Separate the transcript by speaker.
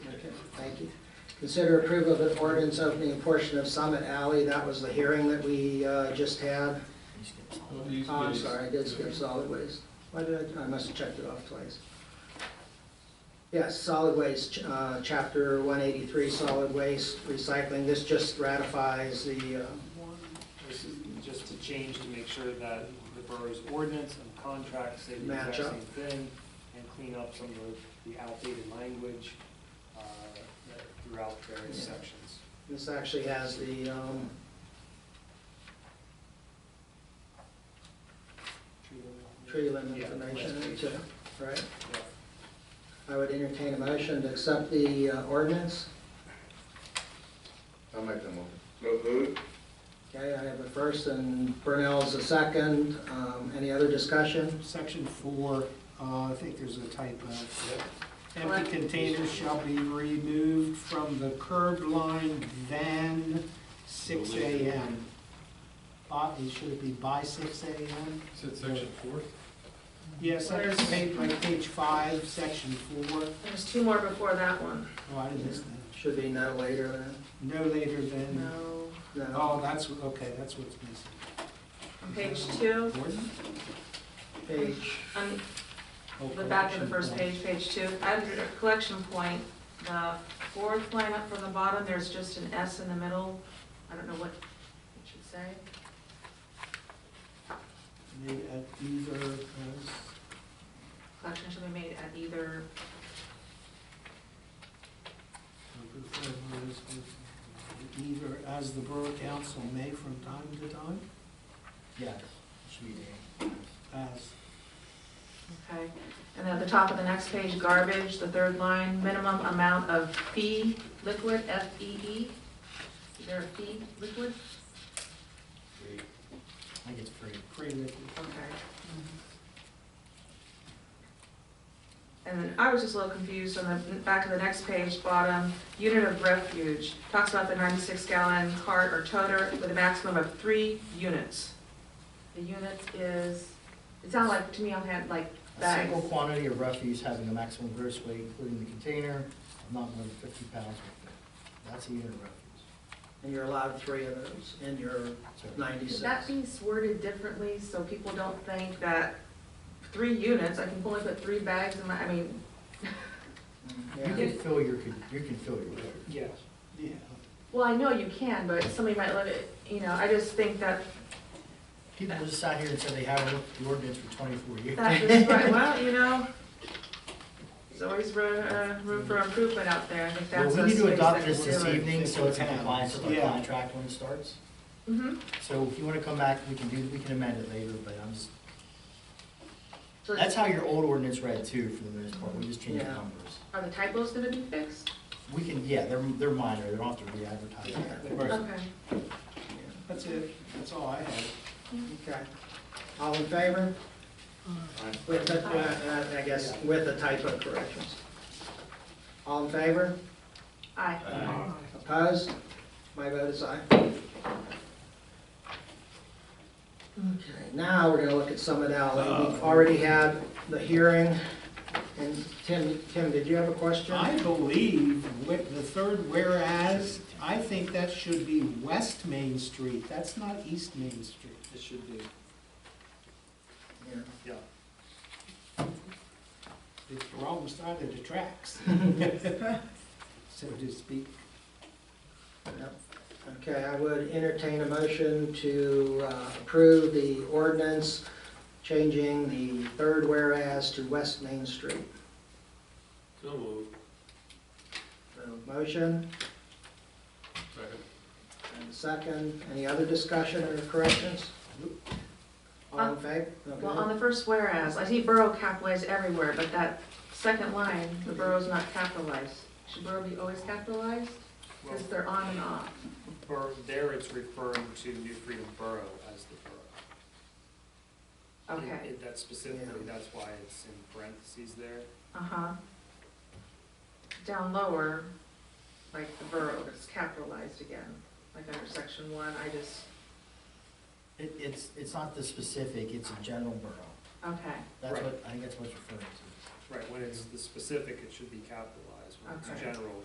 Speaker 1: Consider approve of an ordinance opening a portion of Summit Alley. That was the hearing that we uh, just had. Oh, I'm sorry, I did skip solid waste. Why did I, I must have checked it off twice. Yes, solid waste, uh, chapter one eighty-three, solid waste recycling. This just ratifies the, uh,
Speaker 2: This is just to change to make sure that the borough's ordinance and contracts say the exact
Speaker 1: Match up.
Speaker 2: same thing and clean up some of the outdated language uh, throughout various
Speaker 1: Yeah.
Speaker 2: sections.
Speaker 1: this actually has the, um, tree limb
Speaker 2: Yeah,
Speaker 1: information in it
Speaker 2: last
Speaker 1: too,
Speaker 2: page.
Speaker 1: right?
Speaker 2: Yeah.
Speaker 1: I would entertain a motion to accept the uh, ordinance.
Speaker 3: I'll make the motion.
Speaker 1: Okay, I have a first and Burnell's a second. Um, any other discussion?
Speaker 4: Section four, uh, I think there's a typo. Empty containers shall be removed from the curb line than six AM. By, should it be by six AM?
Speaker 5: Is it section four?
Speaker 4: Yes, that's
Speaker 6: Where's-
Speaker 4: page, like page five, section four.
Speaker 6: There's two more before that one.
Speaker 4: Oh, I didn't miss that.
Speaker 1: Should be no later than,
Speaker 4: No later than,
Speaker 6: No.
Speaker 1: no.
Speaker 4: oh, that's, what- okay, that's what's missing.
Speaker 6: Page two,
Speaker 4: Gordon?
Speaker 1: Page,
Speaker 6: on
Speaker 4: Oh,
Speaker 6: the back of the
Speaker 4: correction
Speaker 6: first
Speaker 4: point.
Speaker 6: page, page two, under collection point, the fourth line up from the bottom, there's just an S in the middle. I don't know what it should say.
Speaker 4: Maybe at either, uh,
Speaker 6: Collection shall be made at either,
Speaker 4: Either as the Borough Council may from time to time? Yes, should be As,
Speaker 6: okay. And at the top of the next page, garbage, the third line, minimum amount of fee liquid, F-E-E. Is there a fee liquid?
Speaker 7: I think it's free.
Speaker 4: pre-written.
Speaker 6: Okay. And then I was just a little confused on the back of the next page, bottom, unit of refuge. Talks about the ninety-six gallon cart or toter with a maximum of three units. The unit is, it sounded like, to me, I had like
Speaker 7: A
Speaker 6: bags.
Speaker 7: single quantity of refuse having a maximum gross weight, including the container, of not more than fifty pounds. That's a unit of refuse.
Speaker 1: and you're allowed three of those in your
Speaker 7: So
Speaker 1: ninety-six.
Speaker 6: Should that be worded differently so people don't think that three units, I can only put three bags in my, I mean,
Speaker 7: You
Speaker 1: Yeah.
Speaker 7: can fill your, con- you can fill your.
Speaker 2: Yeah.
Speaker 4: Yeah.
Speaker 6: well, I know you can, but somebody might let it, you know, I just think that
Speaker 7: People just sat here and said they haven't looked at the ordinance for twenty-four years.
Speaker 6: That is right, well, you know, there's always room, uh, room for improvement out there, I think
Speaker 7: Well,
Speaker 6: that's.
Speaker 7: we
Speaker 6: a
Speaker 7: need to
Speaker 6: space
Speaker 7: adopt
Speaker 6: that
Speaker 7: this
Speaker 6: we're
Speaker 7: this
Speaker 6: doing.
Speaker 7: evening, so it's in
Speaker 4: Yeah.
Speaker 7: compliance with our
Speaker 4: Yeah.
Speaker 7: contract when it starts.
Speaker 6: Mhm.
Speaker 7: So if you wanna come back, we can do, we can amend it later, but I'm just,
Speaker 6: So
Speaker 7: that's
Speaker 6: is-
Speaker 7: how your old ordinance read too, for the most part, we just changed the
Speaker 1: Yeah.
Speaker 7: numbers.
Speaker 6: are the typos gonna be fixed?
Speaker 7: We can, yeah, they're, they're minor, they don't have to re-advertise.
Speaker 4: Right.
Speaker 6: Okay.
Speaker 4: That's it, that's all I have.
Speaker 1: Okay. All in favor? With the, uh, uh, I guess, with the typo corrections. All in favor?
Speaker 6: Aye.
Speaker 1: Opposed? My vote is aye. Okay, now we're gonna look at Summit
Speaker 5: Uh,
Speaker 1: Alley. We've already had the hearing, and Tim, Tim, did you have a question?
Speaker 4: I believe with the third whereas, I think that should be West Main Street, that's not East Main Street.
Speaker 2: It should be.
Speaker 1: Yeah.
Speaker 4: It's the wrong side of the tracks. So to speak.
Speaker 1: Yep. Okay, I would entertain a motion to uh, approve the ordinance changing the third whereas to West Main Street.
Speaker 5: So moved.
Speaker 1: So, Uh, Motion
Speaker 5: Second.
Speaker 1: and a second. Any other discussion or corrections? All in favor?
Speaker 6: Well, on
Speaker 1: Okay.
Speaker 6: the first whereas, I see borough capitalized everywhere, but that second line, the borough's not capitalized. Should borough be always capitalized?
Speaker 2: Well,
Speaker 6: Cause they're on and off.
Speaker 2: bor- There it's referring to New Freedom Borough as the borough.
Speaker 6: Okay,
Speaker 2: It- That's specifically, that's why it's in parentheses there.
Speaker 6: uh-huh. Down lower, like the borough is capitalized again, like under section one, I just.
Speaker 7: It, it's, it's not the specific, it's a general borough.
Speaker 6: Okay,
Speaker 7: That's
Speaker 2: Right.
Speaker 7: what, I think that's what it's referring to.
Speaker 2: Right, when it's the specific, it should be capitalized. When
Speaker 6: Okay.
Speaker 2: it's general,